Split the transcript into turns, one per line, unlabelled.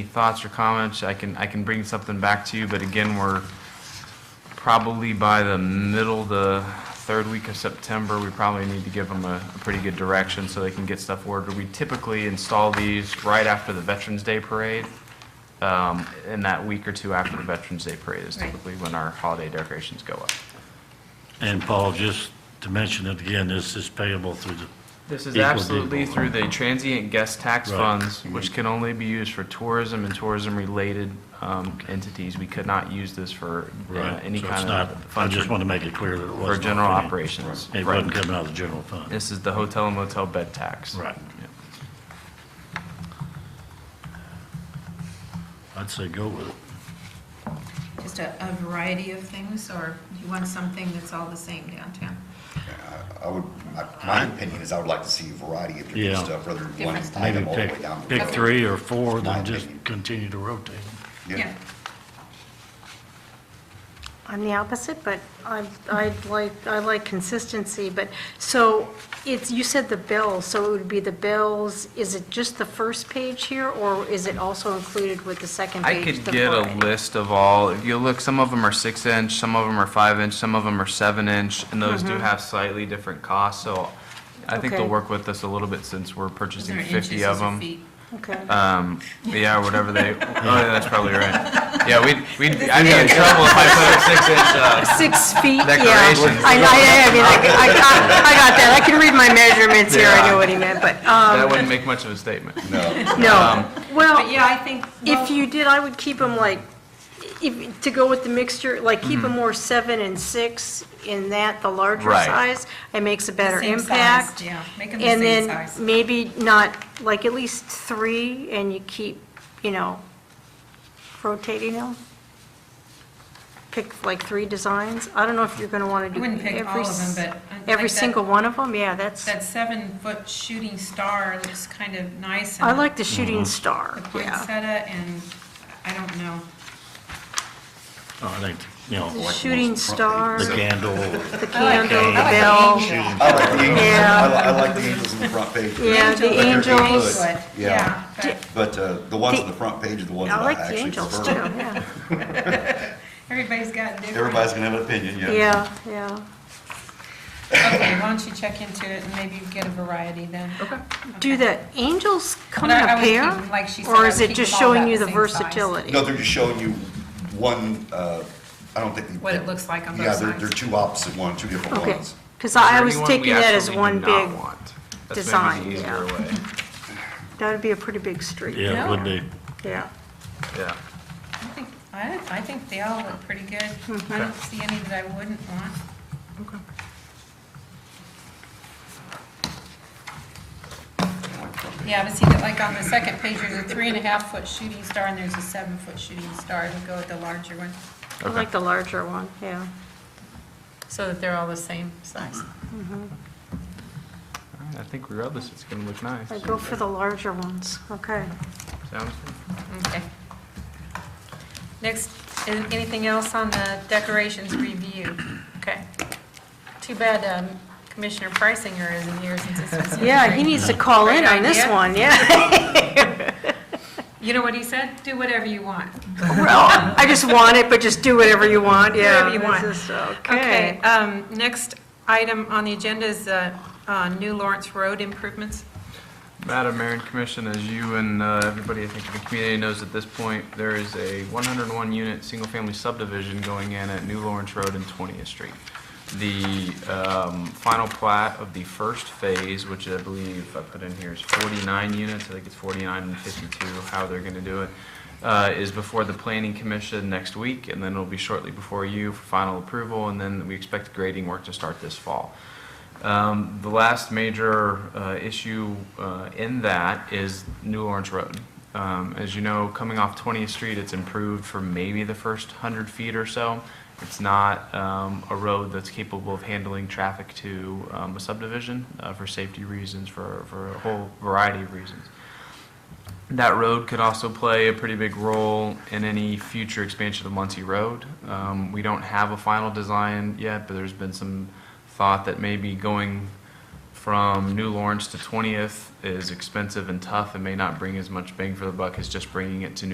Any thoughts or comments? I can, I can bring something back to you, but again, we're probably by the middle, the third week of September, we probably need to give them a, a pretty good direction so they can get stuff ordered. We typically install these right after the Veterans Day Parade. Um, in that week or two after the Veterans Day Parade is
Right.
typically when our holiday decorations go up.
And Paul, just to mention it again, this is payable through the,
This is
Equal
absolutely
people.
through the transient guest tax
Right.
funds, which can only be used for tourism and tourism-related um, entities. We could not use this for uh,
right?
any
So it's
kind
not,
of
I
fund
just want to make it clear that it wasn't.
for general
coming-
operations.
It
Right.
wasn't coming out of the general fund.
This is the hotel and motel bed tax.
Right. I'd say go with it.
Just a, a variety of things, or you want something that's all the same downtown?
I would, my- my opinion is I would like to see a variety of different
Yeah.
stuff rather than one
Different stuff.
item
Maybe
all the way
pick,
down. the
pick
road.
three or four,
My
then just
opinion.
continue to rotate them.
Yeah.
I'm the opposite, but I, I like, I like consistency, but, so, it's, you said the bills, so it would be the bills, is it just the first page here, or is it also included with the second
I
page?
could
the
get a
Friday?
list of all, if you look, some of them are six inch, some of them are five inch, some of them are seven inch, and those
Mm-hmm.
do have slightly different costs, so I think they'll
Okay.
work with us a little bit since we're
Is there
purchasing
inches
fifty
or
of them.
feet?
Okay,
Um, yeah, or whatever they, oh, yeah, that's probably right. Yeah, we'd, we'd, I'd get in trouble if I put a six inch, uh,
six feet, yeah.
Decorations.
I, I, I mean, I, I got, I got that, I can read my measurements here, I
Yeah.
know what he meant, but,
that
um,
wouldn't make much of a statement.
No,
um,
no, well,
But yeah, I think, well,
Oh. If you did, I would keep them like, if, to go with the mixture, like
Mm-hmm.
keep them more seven and six in that, the larger
Right.
size. It makes a better
same size,
impact.
yeah. Make 'em the same
And
size.
then maybe not, like at least three and you keep, you know, rotating them. Pick like three designs. I don't know if you're going to want to do
wouldn't pick
every.
all of
s-
them, but I like
Every
that-
single one of them, yeah, that's,
that seven-foot shooting star looks kind of nice. and
I like the shooting star,
Mm-hmm. The
yeah.
poinsettia, and I don't know.
Oh, I think, you know,
The shooting star,
the
the
candle,
candle, the
I like
bell.
I like the angels,
Yeah.
I li- I like the angels on the front page,
Yeah, the
Angels.
Angel,
angels.
Good,
but-
yeah.
Yeah, but
but uh, the ones on the front page are the ones that
I
I
like the
actually
angels too,
prefer.
yeah.
everybody's got different.
Everybody's gonna have an opinion, yeah.
Yeah, yeah.
Okay, why don't you check into it and maybe get a variety then? Okay.
Do the angels come in
Well, I-
a
I was
pair?
thinking, like she said, I
Or
would
is it
keep
just
them all
showing
about
you
the
the
same size.
versatility?
No, they're just showing you one, uh, I don't think. they-
What it looks like on
Yeah,
both
they're,
sides.
they're two opposite one, two different
Okay,
ones.
because
Is there
I was
anyone we
taking that as
absolutely do
one
not
big,
want?
design,
That's maybe the easier way,
that'd be a pretty big street.
yeah, it would be.
Yeah.
yeah.
I think, I, I think they all look pretty good. I don't see any that I wouldn't want. Yeah, but see, that, like on the second page, there's a three and a half foot shooting star and there's a seven foot shooting star. I would go with the larger one,
I like the larger one, yeah.
so that they're all the same size.
All right, I think regardless, it's gonna look nice.
I go for the larger ones, okay.
Sounds good.
Okay. Next, an- anything else on the decorations review? Okay. Too bad um, Commissioner Preisinger isn't here since this was his
Yeah, he
great-
needs to call in
Great
on this
idea.
one, yeah.
You know what he said? Do whatever you want.
Well, I just want it, but just do whatever you want, yeah.
Whatever you
this
want.
is-
Okay,
Okay.
um, next item on the agenda is uh, uh, new Lawrence Road improvements.
Madam Mayor and Commission, as you and uh, everybody, I think, in the community knows at this point, there is a 101-unit, single-family subdivision going in at New Lawrence Road and 20th Street. The um, final plat of the first phase, which I believe I put in here, is 49 units, I think it's 49 and 52, how they're going to do it, uh, is before the Planning Commission next week, and then it'll be shortly before you for final approval, and then we expect grading work to start this fall. Um, The last major uh, issue uh, in that is New Lawrence Road. Um, As you know, coming off 20th Street, it's improved for maybe the first 100 feet or so. It's not um, a road that's capable of handling traffic to um, a subdivision uh, for safety reasons, for for a whole variety of reasons that road could also play a pretty big role in any future expansion of Muncie Road. Um, we don't have a final design yet, but there's been some thought that maybe going from New Lawrence to 20th is expensive and tough and may not bring as much bang for the buck as just bringing it to New.